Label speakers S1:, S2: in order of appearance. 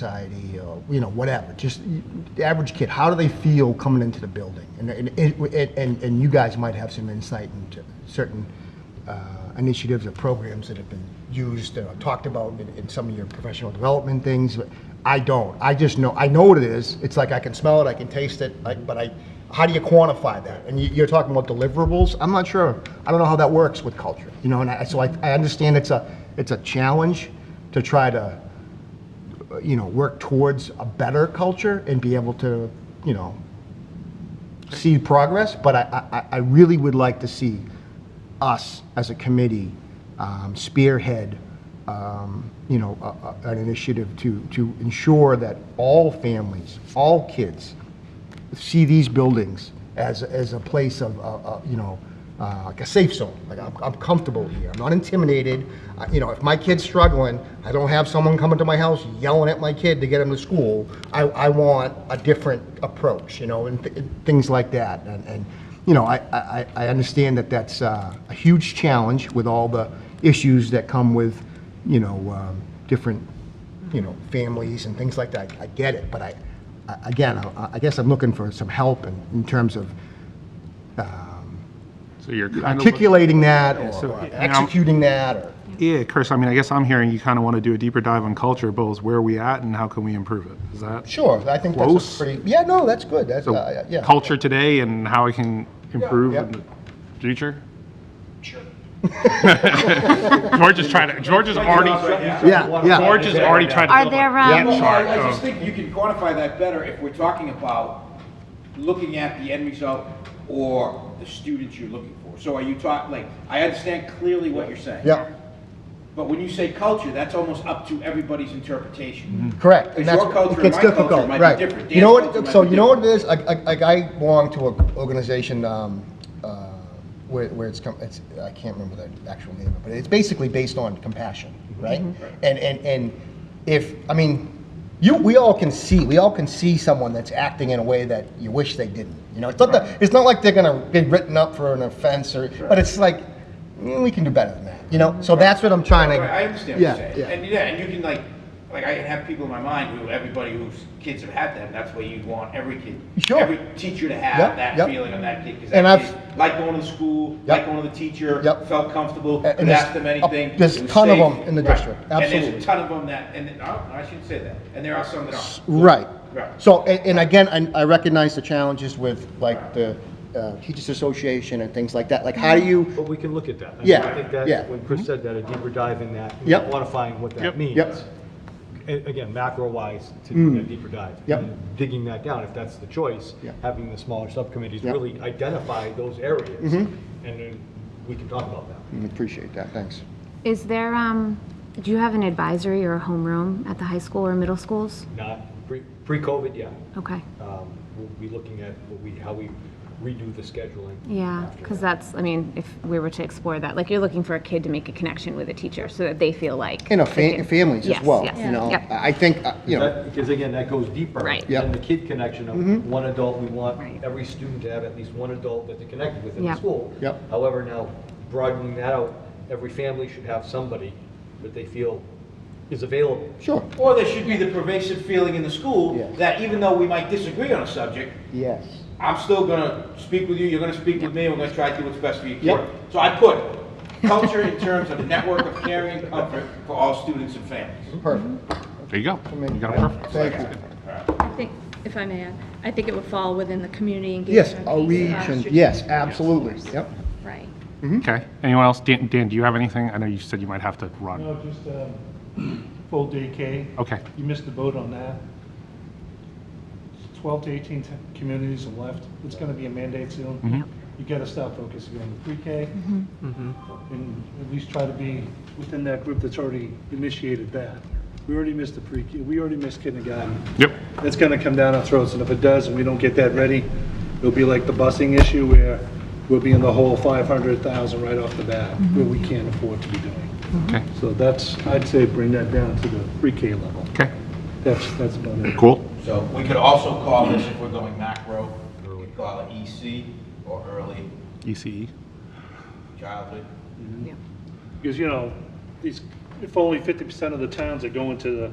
S1: society, or, you know, whatever, just the average kid, how do they feel coming into the building? And, and, it- and, and you guys might have some insight into certain uh, initiatives or programs that have been used or talked about in, in some of your professional development things. But I don't. I just know, I know what it is. It's like I can smell it, I can taste it, I, but I, how do you quantify that? And you, you're talking about deliverables. I'm not sure. I don't know how that works with culture, you know, and I, so I, I understand it's a, it's a challenge to try to you know, work towards a better culture and be able to, you know, see progress. But I, I, I really would like to see us as a committee um, spearhead, um, you know, a, a- an initiative to, to ensure that all families, all kids, see these buildings as, as a place of, uh, uh, you know, uh, like a safe zone. Like I'm, I'm comfortable here. I'm not intimidated. I, you know, if my kid's struggling, I don't have someone coming to my house yelling at my kid to get him to school. I, I want a different approach, you know, and, th- and things like that. And, and you know, I, I, I I understand that that's uh, a huge challenge with all the issues that come with, you know, um, different you know, families and things like that. I get it, but I, I- again, I I guess I'm looking for some help in, in terms of
S2: So you're kind of.
S1: articulating that or
S2: so,
S1: or
S2: you know,
S1: executing that or.
S2: Yeah, Chris, I mean, I guess I'm hearing you kind of want to do a deeper dive on culture, both as where are we at and how can we improve it? Is that?
S1: Sure, I think that's
S2: Close.
S1: a pretty, yeah, no, that's good, that's,
S2: So
S1: uh, yeah.
S2: culture today and how I can improve
S1: yeah.
S2: in the future? Sure. George is trying to, George is already,
S1: Yeah,
S2: George
S1: yeah.
S2: is already trying to.
S3: Are
S2: build a
S3: there,
S2: depth
S3: um,
S2: chart
S4: I I just
S2: of-
S4: think you can quantify that better if we're talking about looking at the end result or the students you're looking for. So are you talking, like, I understand clearly what you're saying.
S1: Yeah,
S4: But when you say culture, that's almost up to everybody's interpretation.
S1: correct. and
S4: Because your
S1: that's- it
S4: culture and
S1: gets
S4: my culture
S1: difficult,
S4: might
S1: right.
S4: be different.
S1: You know
S4: Dan's culture
S1: what,
S4: might
S1: so
S4: be
S1: you know what it
S4: different.
S1: is, I, I- like, I belong to an organization, um, uh, where, where it's, com- it's, I can't remember the actual name, of it, but it's basically based on compassion, right? And, and, and if, I mean, you, we all can see, we all can see someone that's acting in a way that you wish they didn't. You know, it's not, that, it's not like they're gonna get written up for an offense or, but it's like, mm, we can do better than that, you know? So that's what I'm trying to.
S4: Right, I understand what
S1: Yeah,
S4: you're saying.
S1: yeah.
S4: And, yeah, and you can like, like I have people in my mind who, everybody whose kids have had them, that's why you want every kid,
S1: Sure.
S4: every teacher to
S1: Yep,
S4: have that
S1: yep.
S4: feeling on that kid. 'cause
S1: And
S4: that
S1: I've-
S4: kid Liked going to the school,
S1: Yep.
S4: liked going to the teacher,
S1: Yep.
S4: felt comfortable,
S1: A- and
S4: could
S1: there's
S4: ask them
S1: a-
S4: anything.
S1: there's
S4: it
S1: a
S4: was
S1: ton of
S4: safe.
S1: them in the
S4: Right.
S1: district,
S4: And
S1: absolutely.
S4: there's a ton of them that, and, then- no, I shouldn't say that, and there are some that aren't.
S1: Right.
S4: Right.
S1: So, a- and again, I I recognize the challenges with like the uh, Teachers Association and things like that. Like, how do you,
S5: But we can look at that. I mean,
S1: Yeah,
S5: I think
S1: yeah. Mm-hmm.
S5: that, when Chris said that, a deeper dive in that, and
S1: Yep.
S5: quantifying what
S2: Yep.
S5: that means.
S1: Yep. Mm.
S5: A- Again, macro-wise, to do a deeper dive.
S1: Yep.
S5: and Digging that down, if that's the choice,
S1: Yep.
S5: having the smaller subcommittees
S1: Yep. Mm-hmm.
S5: really identify those areas. And then we can talk about that.
S1: Mm, appreciate that, thanks.
S3: Is there, um, do you have an advisory or a homeroom at the high school or middle schools?
S5: Not pre- pre-COVID, yeah.
S3: Okay,
S5: Um, We'll be looking at what we, how we redo the scheduling.
S3: yeah, because that's, I mean, if we were to explore that, like, you're looking for a kid to make a connection with a teacher so that they feel like.
S1: And a
S3: they
S1: fa-
S3: can-
S1: families as
S3: Yes,
S1: well,
S3: yes,
S1: you know?
S3: yep.
S1: I I think, uh, you know,
S5: That- Because again, that goes deeper.
S3: Right.
S1: Yep.
S5: Than the kid connection of one adult, we
S3: Right.
S5: want every student to have at least one adult that they're connected with in the
S3: Yep.
S5: school.
S1: Yep.
S5: However, now broadening that out, every family should have somebody that they feel is available.
S1: sure.
S4: Or there should be the pervasive feeling in the
S1: Yeah.
S4: school that even though we might disagree on a subject,
S1: Yes.
S4: I'm still gonna speak with you, you're gonna speak with me, we're gonna try to do what's best for your
S1: Yep.
S4: kid. So I put culture in terms of a network of caring and comfort for all students and families.
S1: Perfect.
S2: There you go. You got it perfect.
S1: Thank you.
S6: I think, if I may add, I think it would fall within the community engagement.
S1: Yes,
S6: piece
S1: I'll reach
S6: of
S1: and,
S6: strategic
S1: yes, absolutely,
S6: course.
S1: yep.
S6: Right.
S1: Mm-hmm.
S2: Okay. Anyone else? Dan, Dan, do you have anything? I know you said you might have to run.
S7: No, just um, full day K.
S2: Okay.
S7: You missed the boat on that. 12 to 18 t- communities have left. It's going to be a mandate soon. You got to stop focusing on the pre-K and at least try to be within that group that's already initiated that. We already missed the pre-K, we already missed kindergarten.
S2: Yep.
S7: It's going to come down our throats, and if it does, and we don't get that ready, it'll be like the busing issue where we'll be in the hole 500,000 right off the bat, where we can't afford to be doing.
S2: Okay.
S7: So that's, I'd say bring that down to the pre-K level.
S2: Okay.
S7: That's, that's about it.
S2: Cool.
S4: So we could also call this, if we're going macro, we could call it EC or early
S2: ECE.
S4: childhood.
S7: Because, you know, these, if only fifty percent of the towns are going to the